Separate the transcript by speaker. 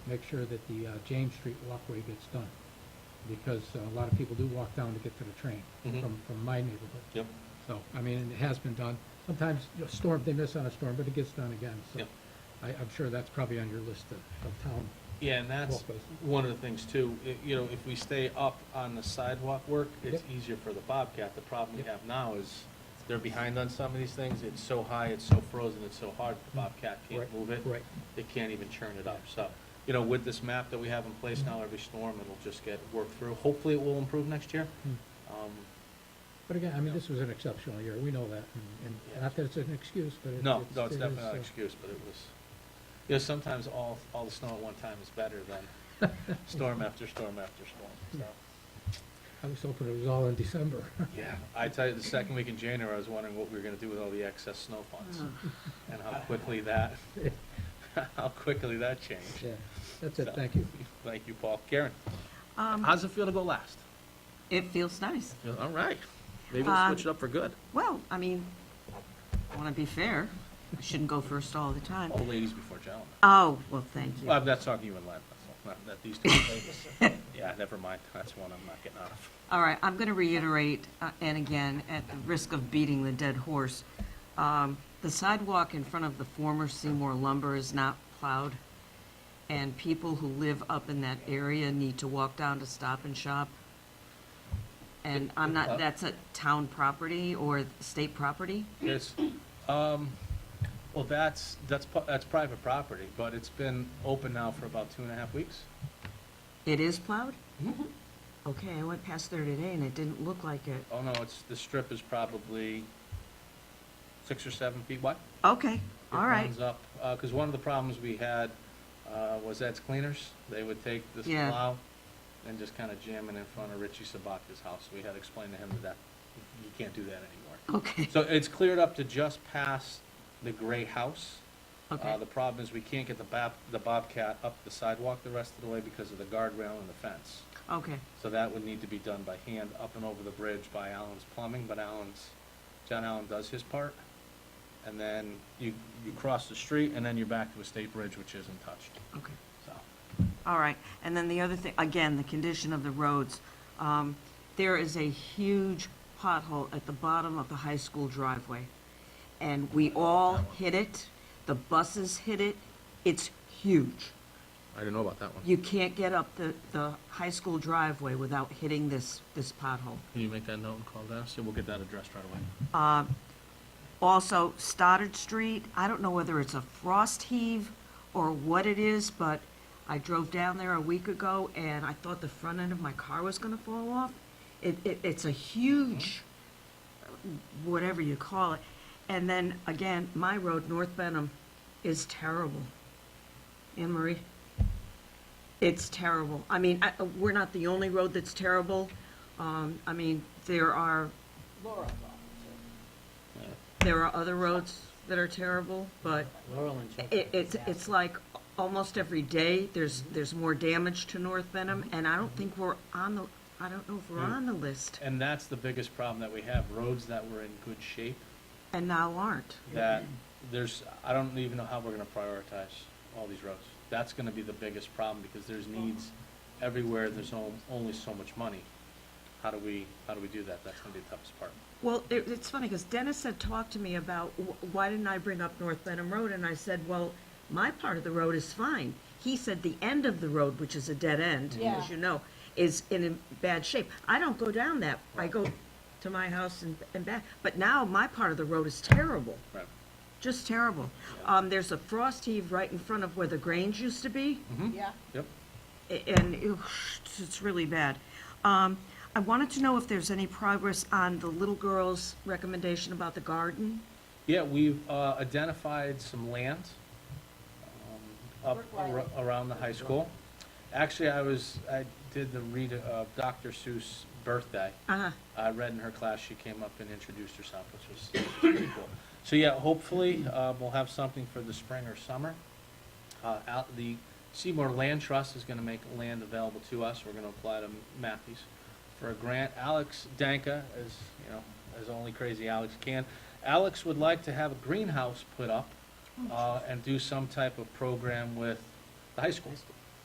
Speaker 1: make sure that the uh, James Street walkway gets done, because uh, a lot of people do walk down to get to the train
Speaker 2: Mhm.
Speaker 1: from, from my neighborhood.
Speaker 2: Yep,
Speaker 1: So, I mean, it has been done. Sometimes you know, storm, they miss on a storm, but it gets done again, so.
Speaker 2: Yep.
Speaker 1: I, I'm sure that's probably on your list of, of town.
Speaker 2: yeah, and that's
Speaker 1: Walkways.
Speaker 2: one of the things too, i- you know, if we stay up on the sidewalk work, it's
Speaker 1: Yep.
Speaker 2: easier for the Bobcat. The problem we
Speaker 1: Yep.
Speaker 2: have now is they're behind on some of these things, it's so high, it's so frozen, it's so hard, the Bobcat can't
Speaker 1: Mm. Right,
Speaker 2: move it.
Speaker 1: Right,
Speaker 2: They can't even churn it up, so, you know, with this map that we have in place
Speaker 1: Mm.
Speaker 2: now, every storm, it'll just get worked through. Hopefully it will improve next year.
Speaker 1: Hmm.
Speaker 2: Um,
Speaker 1: but again, I mean, this was an exceptional year, we know that, and- and
Speaker 2: Yeah.
Speaker 1: not that it's an excuse, but it-
Speaker 2: No,
Speaker 1: it's-
Speaker 2: no, it's
Speaker 1: it
Speaker 2: definitely
Speaker 1: is,
Speaker 2: not
Speaker 1: uh,
Speaker 2: an excuse, but it was, you know, sometimes all, all the snow at one time is better than storm after storm after storm,
Speaker 1: I was hoping it was all in December.
Speaker 2: so. Yeah, I tell you, the second week in January, I was wondering what we were gonna do with all the excess snow funds,
Speaker 3: Oh.
Speaker 2: and how quickly that, how quickly that changed.
Speaker 1: Yeah, that's it,
Speaker 2: So,
Speaker 1: thank you.
Speaker 2: Thank you, Paul. Karen,
Speaker 3: Um,
Speaker 2: how's it feel to go last?
Speaker 3: It feels nice.
Speaker 2: Feel- All right, maybe we'll
Speaker 3: Um,
Speaker 2: switch it up for good.
Speaker 3: Well, I mean, I want to be fair. I shouldn't go first all the time.
Speaker 2: All ladies before gentlemen.
Speaker 3: Oh, well, thank
Speaker 2: Well,
Speaker 3: you.
Speaker 2: I'm not talking to you in Latin, that's all, not that these two ladies. Yeah, never mind, that's one I'm not getting out of.
Speaker 3: All right, I'm going to reiterate, uh, and again, at the risk of beating the dead horse, um, the sidewalk in front of the former Seymour Lumber is not plowed, and people who live up in that area need to walk down to Stop and Shop. And I'm not, that's a town property or state property?
Speaker 2: It's, um, well, that's, that's, pu- that's private property, but it's been open now for about two and a half weeks.
Speaker 3: It is plowed? Okay, I went past there today and it didn't look like it.
Speaker 2: Oh, no, it's, the strip is probably six or seven feet wide.
Speaker 3: Okay, all
Speaker 2: It
Speaker 3: right.
Speaker 2: runs up, uh 'cause cause one of the problems we had, uh, was that's cleaners, they would take this
Speaker 3: Yeah.
Speaker 2: plow and just kinda jam it in front of Richie Sabaka's house, we had to explain to him that that, you can't do that anymore.
Speaker 3: Okay,
Speaker 2: So it's cleared up to just past the gray house. Uh,
Speaker 3: Okay.
Speaker 2: The problem is we can't get the bob, the Bobcat up the sidewalk the rest of the way because of the guardrail and the fence.
Speaker 3: okay,
Speaker 2: So that would need to be done by hand up and over the bridge by Allen's Plumbing, but Allen's, John Allen does his part. And then you, you cross the street and then you're back to a state bridge which isn't touched,
Speaker 3: okay.
Speaker 2: so.
Speaker 3: All right. And then the other thing, again, the condition of the roads. Um, There is a huge pothole at the bottom of the high school driveway. And we all hit it, the buses hit it, it's huge.
Speaker 2: I didn't know about that one.
Speaker 3: You can't get up the, the high school driveway without hitting this, this pothole.
Speaker 2: Can you make that note and call Dennis? Yeah, we'll get that addressed right away.
Speaker 3: Also, Stoddard Street, I don't know whether it's a frost heave or what it is, but I drove down there a week ago and I thought the front end of my car was gonna fall off. It, it, it's a huge, whatever you call it. And then again, my road, North Benham, is terrible. Anne Marie? It's terrible. I mean, I, we're not the only road that's terrible. Um, I mean, there are there are other roads that are terrible, but it, it's, it's like almost every day, there's, there's more damage to North Benham, and I don't think we're on the, I don't know if we're on the list,
Speaker 2: And that's the biggest problem that we have, roads that were in good shape
Speaker 3: and now aren't.
Speaker 2: that there's, I don't even know how we're gonna prioritize all these roads. That's gonna be the biggest problem, because there's needs everywhere, there's on- only so much money. How do we, how do we do that? That's gonna be the toughest part.
Speaker 3: Well, it, it's funny, because Dennis had talked to me about, wh- why didn't I bring up North Benham Road, and I said, well, my part of the road is fine. He said the end of the road, which is a dead end,
Speaker 4: Yeah.
Speaker 3: as you know, is in a bad shape. I don't go down that, I go to my house and, and back, but now my part of the road is terrible.
Speaker 2: Right.
Speaker 3: Just terrible. Um, there's a frost heave right in front of where the Grange used to be,
Speaker 4: Yeah,
Speaker 2: Yep.
Speaker 3: a- and ew, it's- it's really bad. Um, I wanted to know if there's any progress on the little girl's recommendation about the garden.
Speaker 2: Yeah, we've, uh, identified some land, um, up ar-
Speaker 4: Brookline.
Speaker 2: around the high school. Actually, I was, I did the read of Dr. Seuss' birthday.
Speaker 3: Uh-huh,
Speaker 2: I read in her class, she came up and introduced herself, which was pretty cool. So yeah, hopefully, uh, we'll have something for the spring or summer. Uh, out, the Seymour Land Trust is gonna make land available to us, we're gonna apply to Matthews for a grant. Alex Danka, as, you know, as only crazy Alex can, Alex would like to have a greenhouse put up, uh, and do some type of program with the high school.